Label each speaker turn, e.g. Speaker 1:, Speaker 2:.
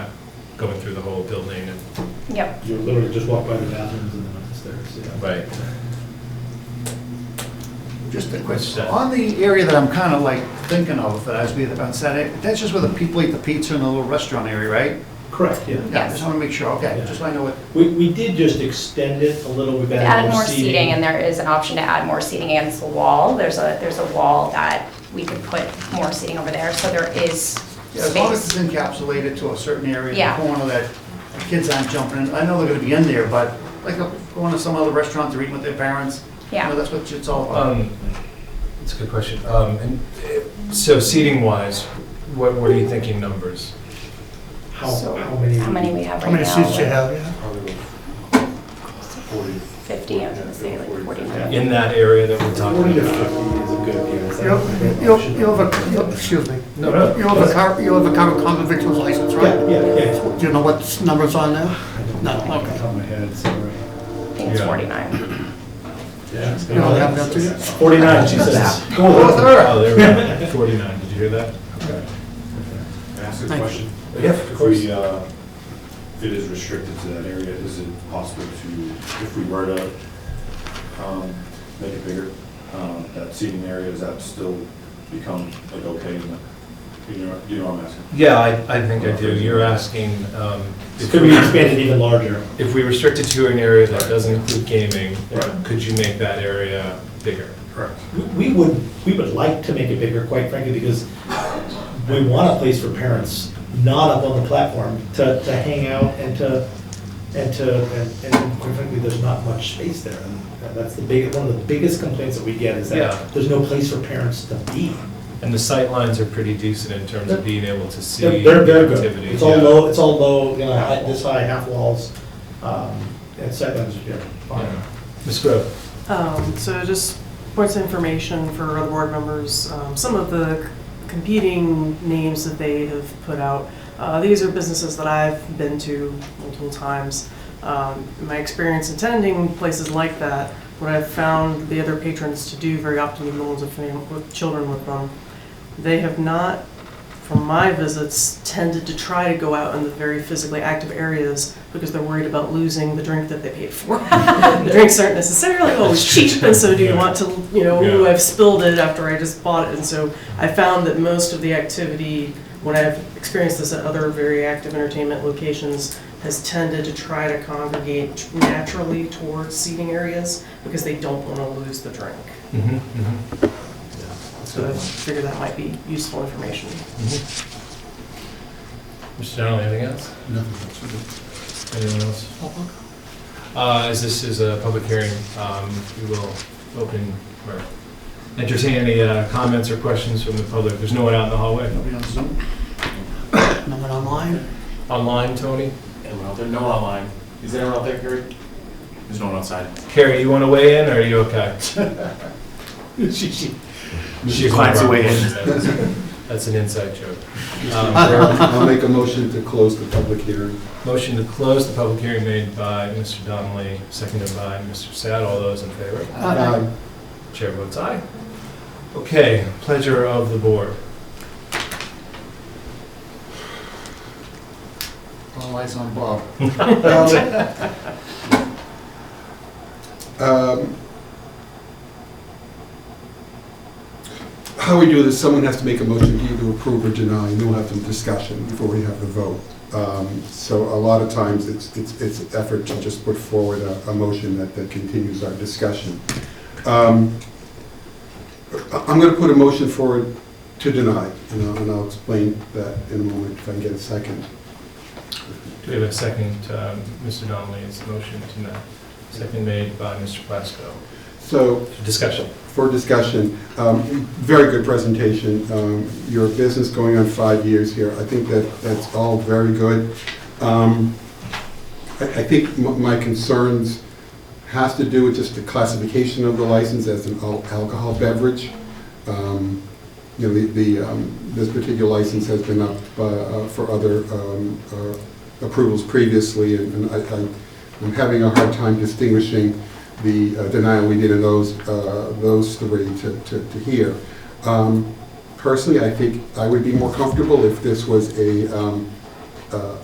Speaker 1: through the whole building and
Speaker 2: Yep.
Speaker 3: You literally just walk by the bathrooms and then up the stairs, yeah.
Speaker 1: Right.
Speaker 4: Just a
Speaker 1: What's
Speaker 4: question,
Speaker 1: that?
Speaker 4: on the area that I'm kind of like thinking of, that I was being about Saturday, that's just where the people eat the pizza in the little restaurant area, right?
Speaker 3: Correct, yeah.
Speaker 4: Yeah, just want to make sure, okay, just so I know what,
Speaker 3: We, we did just extend it a little, we've
Speaker 2: Add
Speaker 3: added
Speaker 2: more
Speaker 3: more
Speaker 2: seating, and there is an option to add more seating against the wall. There's a, there's a wall that we could put more seating over there, so there is
Speaker 4: yeah, as long as it's
Speaker 2: space.
Speaker 4: encapsulated to a certain area,
Speaker 2: Yeah.
Speaker 4: the corner that the kids aren't jumping in, I know they're going to be in there, but like uh, going to some other restaurant, they're eating with their parents. you know,
Speaker 2: Yeah.
Speaker 4: That's what it's all about.
Speaker 1: Um, That's a good question. Um, and, uh, So seating wise, what, what are you thinking numbers?
Speaker 3: How,
Speaker 2: So,
Speaker 3: how many?
Speaker 2: how many we have
Speaker 5: How
Speaker 2: right now?
Speaker 5: many seats you have, yeah?
Speaker 6: Probably forty.
Speaker 2: 50, I was gonna say, like 49.
Speaker 1: In that area that we're
Speaker 3: Forty
Speaker 1: talking
Speaker 3: to
Speaker 1: about?
Speaker 3: fifty is a good guess. I
Speaker 5: You'll,
Speaker 3: don't think that
Speaker 5: you'll,
Speaker 3: should-
Speaker 5: you'll have a, you'll- excuse me,
Speaker 1: No, no.
Speaker 5: you'll have a car, you'll have a current common victim's license,
Speaker 3: Yeah,
Speaker 5: right?
Speaker 3: yeah, yeah.
Speaker 5: Do you know what number's on there? No,
Speaker 3: Off the
Speaker 5: okay.
Speaker 3: top of my head, sorry.
Speaker 2: I think it's
Speaker 1: Yeah.
Speaker 2: 49.
Speaker 3: Yeah, it's
Speaker 5: You don't have
Speaker 3: gonna-
Speaker 5: that, do you?
Speaker 3: Forty-nine, she says.
Speaker 4: Go with her.
Speaker 1: Oh, there we go. Forty-nine, did you hear that? Okay.
Speaker 6: Can I ask a
Speaker 5: Thank you.
Speaker 6: question?
Speaker 1: Yeah, of
Speaker 6: If
Speaker 1: course.
Speaker 6: we, uh, if it is restricted to that area, is it possible to, if we were to um, make it bigger, um, that seating area, does that still become like okay? in the- You know, you know what I'm asking?
Speaker 1: Yeah, I, I think I do. You're asking, um,
Speaker 3: It Could be expanded even larger.
Speaker 1: if we restrict it to an area that doesn't include gaming,
Speaker 3: Right.
Speaker 1: could you make that area bigger?
Speaker 6: Correct.
Speaker 3: We- We would, we would like to make it bigger, quite frankly, because we want a place for parents not up on the platform to, to hang out and to, and to, and- and quite frankly, there's not much space there. And That's the big, one of the biggest complaints that we get is
Speaker 1: Yeah.
Speaker 3: that there's no place for parents to be.
Speaker 1: And the sight lines are pretty decent in terms of being able to see
Speaker 3: They're, they're very good.
Speaker 1: activity.
Speaker 3: It's all
Speaker 1: yeah.
Speaker 3: low, it's all low, you know, high- this high, half walls, um, and sightlines are fine.
Speaker 1: Yeah. Ms. Grove?
Speaker 7: Um, So just points of information for other board members, um, some of the competing names that they have put out. Uh, These are businesses that I've been to multiple times. Um, in My experience attending places like that, what I've found the other patrons to do very often, the ones with fam- with children with them, they have not, from my visits, tended to try to go out in the very physically active areas because they're worried about losing the drink that they paid for. Drinks aren't necessarily always
Speaker 1: That's true.
Speaker 7: cheap, and so do you
Speaker 1: Yeah.
Speaker 7: want to, you know,
Speaker 1: Yeah.
Speaker 7: ooh, I've spilled it after I just bought it. And so I found that most of the activity, when I've experienced this at other very active entertainment locations, has tended to try to congregate naturally towards seating areas because they don't want to lose the drink.
Speaker 1: Mhm, mhm.
Speaker 7: So I figured that might be useful information.
Speaker 1: Mr. Donnelly, anything else? Anyone else? Uh, As this is a public hearing, um, we will open or entertain any uh, comments or questions from the public. There's no one out in the hallway.
Speaker 4: Nobody on Zoom?
Speaker 5: No one online?
Speaker 1: Online, Tony?
Speaker 8: Anyone out there? No one online. Is there anyone out there, Gary? There's no one outside.
Speaker 1: Carrie, you want to weigh in or are you okay?
Speaker 3: She- she-
Speaker 1: She
Speaker 8: finds a way
Speaker 1: in. That's an inside joke. Um,
Speaker 9: I'll make a motion to close the public hearing.
Speaker 1: Motion to close the public hearing made by Mr. Donnelly, seconded by Mr. Sad. All those in favor?
Speaker 2: Oh,
Speaker 6: Uh,
Speaker 9: Aye.
Speaker 1: Chair votes aye. Okay, pleasure of the board.
Speaker 4: All eyes on Bob.
Speaker 9: Um, How we do this, someone has to make a motion to either approve or deny, and then we'll have some discussion before we have the vote. Um, So a lot of times, it's, it's, it's an effort to just put forward a, a motion that, that continues our discussion. Um, I- I'm gonna put a motion forward to deny, and I'll, and I'll explain that in a moment if I can get a second.
Speaker 1: Do we have a second, um, Mr. Donnelly's motion tonight? Second made by Mr. Plasko.
Speaker 9: So,
Speaker 1: Discussion.
Speaker 9: for discussion. Um, Very good presentation. Um, Your business going on five years here, I think that, that's all very good. Um, I I think m- my concerns has to do with just the classification of the license as an al- alcohol beverage. Um, You know, the, the, um, this particular license has been up uh, uh, for other um, uh, approvals previously, and and I, I- I'm having a hard time distinguishing the uh, denial we did of those, uh, those three to, to, to hear. Um, Personally, I think I would be more comfortable if this was a, um, uh,